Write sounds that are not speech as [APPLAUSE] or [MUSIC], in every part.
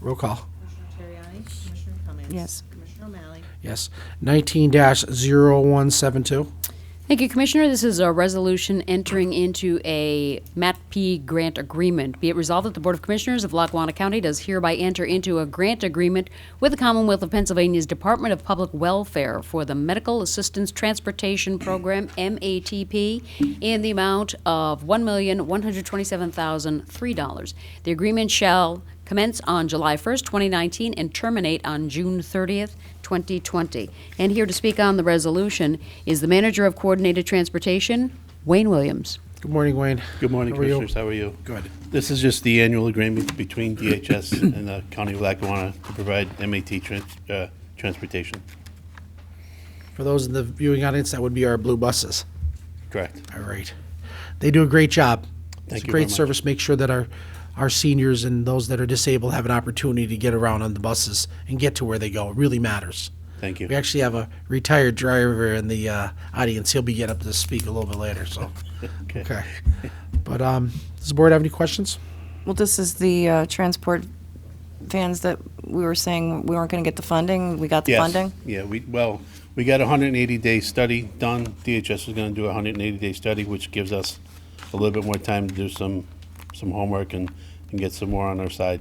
Roll call. Commissioner Terriani? Commissioner Cummings? Yes. Commissioner O'Malley? Yes. Nineteen 172 Thank you, Commissioner. This is a resolution entering into a MATP grant agreement. Be it resolved that the Board of Commissioners of Lackawanna County does hereby enter into a grant agreement with the Commonwealth of Pennsylvania's Department of Public Welfare for the Medical Assistance Transportation Program, MATP, in the amount of $1,127,003. The agreement shall commence on July 1st, 2019, and terminate on June 30th, 2020. And here to speak on the resolution is the Manager of Coordinated Transportation, Wayne Williams. Good morning, Wayne. Good morning, How are you? Commissioners. How are you? Good. This is just the annual agreement between [COUGHS] DHS and the County of Lackawanna to provide MAT trans- uh, transportation. For those in the viewing audience, that would be our blue buses. Correct. All right. They do a great job. it's a Thank you very great much. service. Make sure that our our seniors and those that are disabled have an opportunity to get around on the buses and get to where they go. It really matters. Thank you. We actually have a retired driver in the uh, audience. He'll be getting up to speak a little bit later. So, [LAUGHS] Okay. okay. But um, does the board have any questions? Well, this is the uh, transport vans that we were saying we weren't going to get the funding. We got the Yes. funding. Yeah, we, well, we got a hundred and eighty day study done. DHS is gonna do a hundred and eighty day study, which gives us a little bit more time to do some, some homework and, and get some more on our side.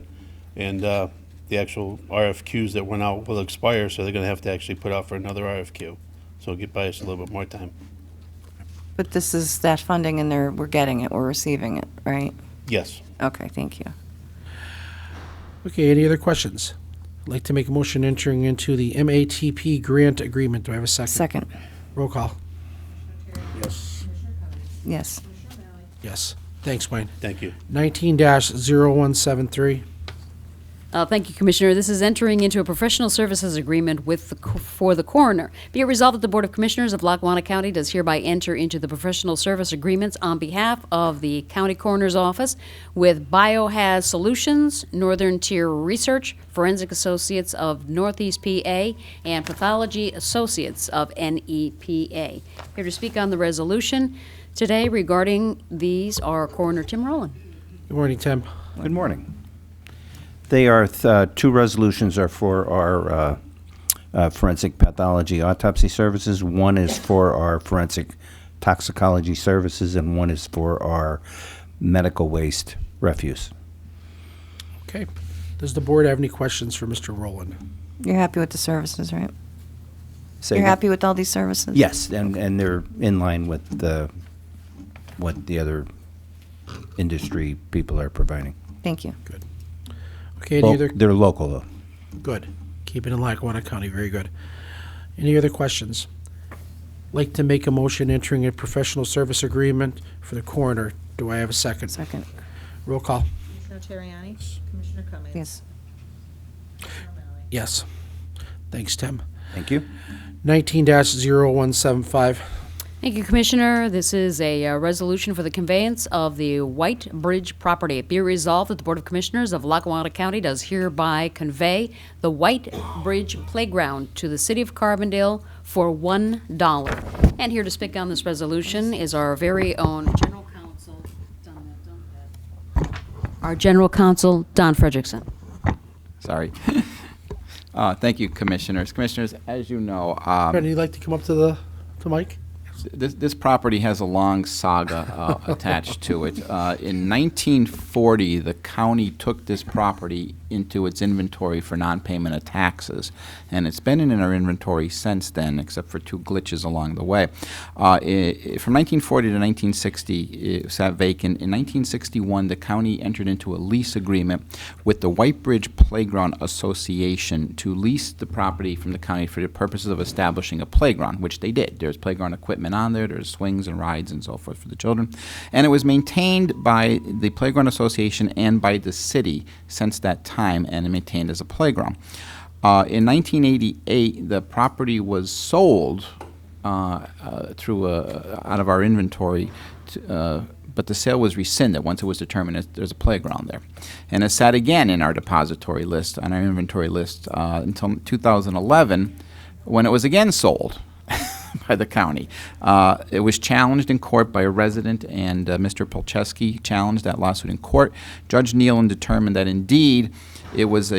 And, uh, the actual RFQs that went out will expire, so they're gonna have to actually put out for another RFQ. So it'll get by us a little bit more time. But this is that funding, and they're, we're getting it, we're receiving it, right? Yes. Okay, thank you. Okay. Any other questions? I'd like to make a motion entering into the MATP grant agreement. Do I have a second? Second, Roll call. Yes. yes. Yes. Thanks, Wayne. Thank you. 19 0173. Uh, Thank you, Commissioner. This is entering into a professional services agreement with, the co- for the coroner. Be it resolved that the Board of Commissioners of Lackawanna County does hereby enter into the professional service agreements on behalf of the County Coroner's Office with Biohaz Solutions, Northern Tier Research, Forensic Associates of Northeast PA, and Pathology Associates of NEPA. Here to speak on the resolution today regarding these are Coroner Tim Rowland. Good morning, Tim. Good morning. They are, th- uh, two resolutions are for our uh, uh, forensic pathology autopsy services. One is for our forensic toxicology services, and one is for our medical waste refuse. Okay. Does the board have any questions for Mr. Rowland? You're happy with the services, right? Say You're again? happy with all these services? Yes, and, and they're in line with the, what the other industry people are providing. Thank you. Okay, any Lo- other? They're local, though. Good. Keep it in Lackawanna County. Very good. Any other questions? Like to make a motion entering a professional service agreement for the coroner. Do I have a second? Second, Roll call. Commissioner Terriani? Commissioner Cummings? yes. Commissioner O'Malley? Yes. Thanks, Tim. Thank you. 19 0175. Thank you, Commissioner. This is a uh, resolution for the conveyance of the White Bridge property. Be resolved that the Board of Commissioners of Lackawanna County does hereby convey the White Bridge Playground to the City of Carbondale for $1. And here to speak on this resolution is our very own General Counsel, Don- Don- our General Counsel, Don Frederickson. Sorry. [LAUGHS] Uh, Thank you, Commissioners. Commissioners, as you know, um, Brendan, you'd like to come up to the, to Mike? this, this property has a long saga uh, attached to it. Uh, in 1940, the county took this property into its inventory for non-payment of taxes, and it's been in our inventory since then, except for two glitches along the way. Uh, i- i- from 1940 to 1960, it sat vacant. In 1961, the county entered into a lease agreement with the White Bridge Playground Association to lease the property from the county for the purposes of establishing a playground, which they did. There's playground equipment on there, there's swings and rides and so forth for the children. And it was maintained by the Playground Association and by the city since that time and maintained as a playground. Uh, in 1988, the property was sold uh, uh, through a, out of our inventory, t uh, but the sale was rescinded once it was determined that there's a playground there. And it sat again in our depository list, on our inventory list, uh, until 2011, when it was again sold [LAUGHS] by the county. Uh, it was challenged in court by a resident, and uh, Mr. Polcheski challenged that lawsuit in court. Judge Nealon determined that indeed it was a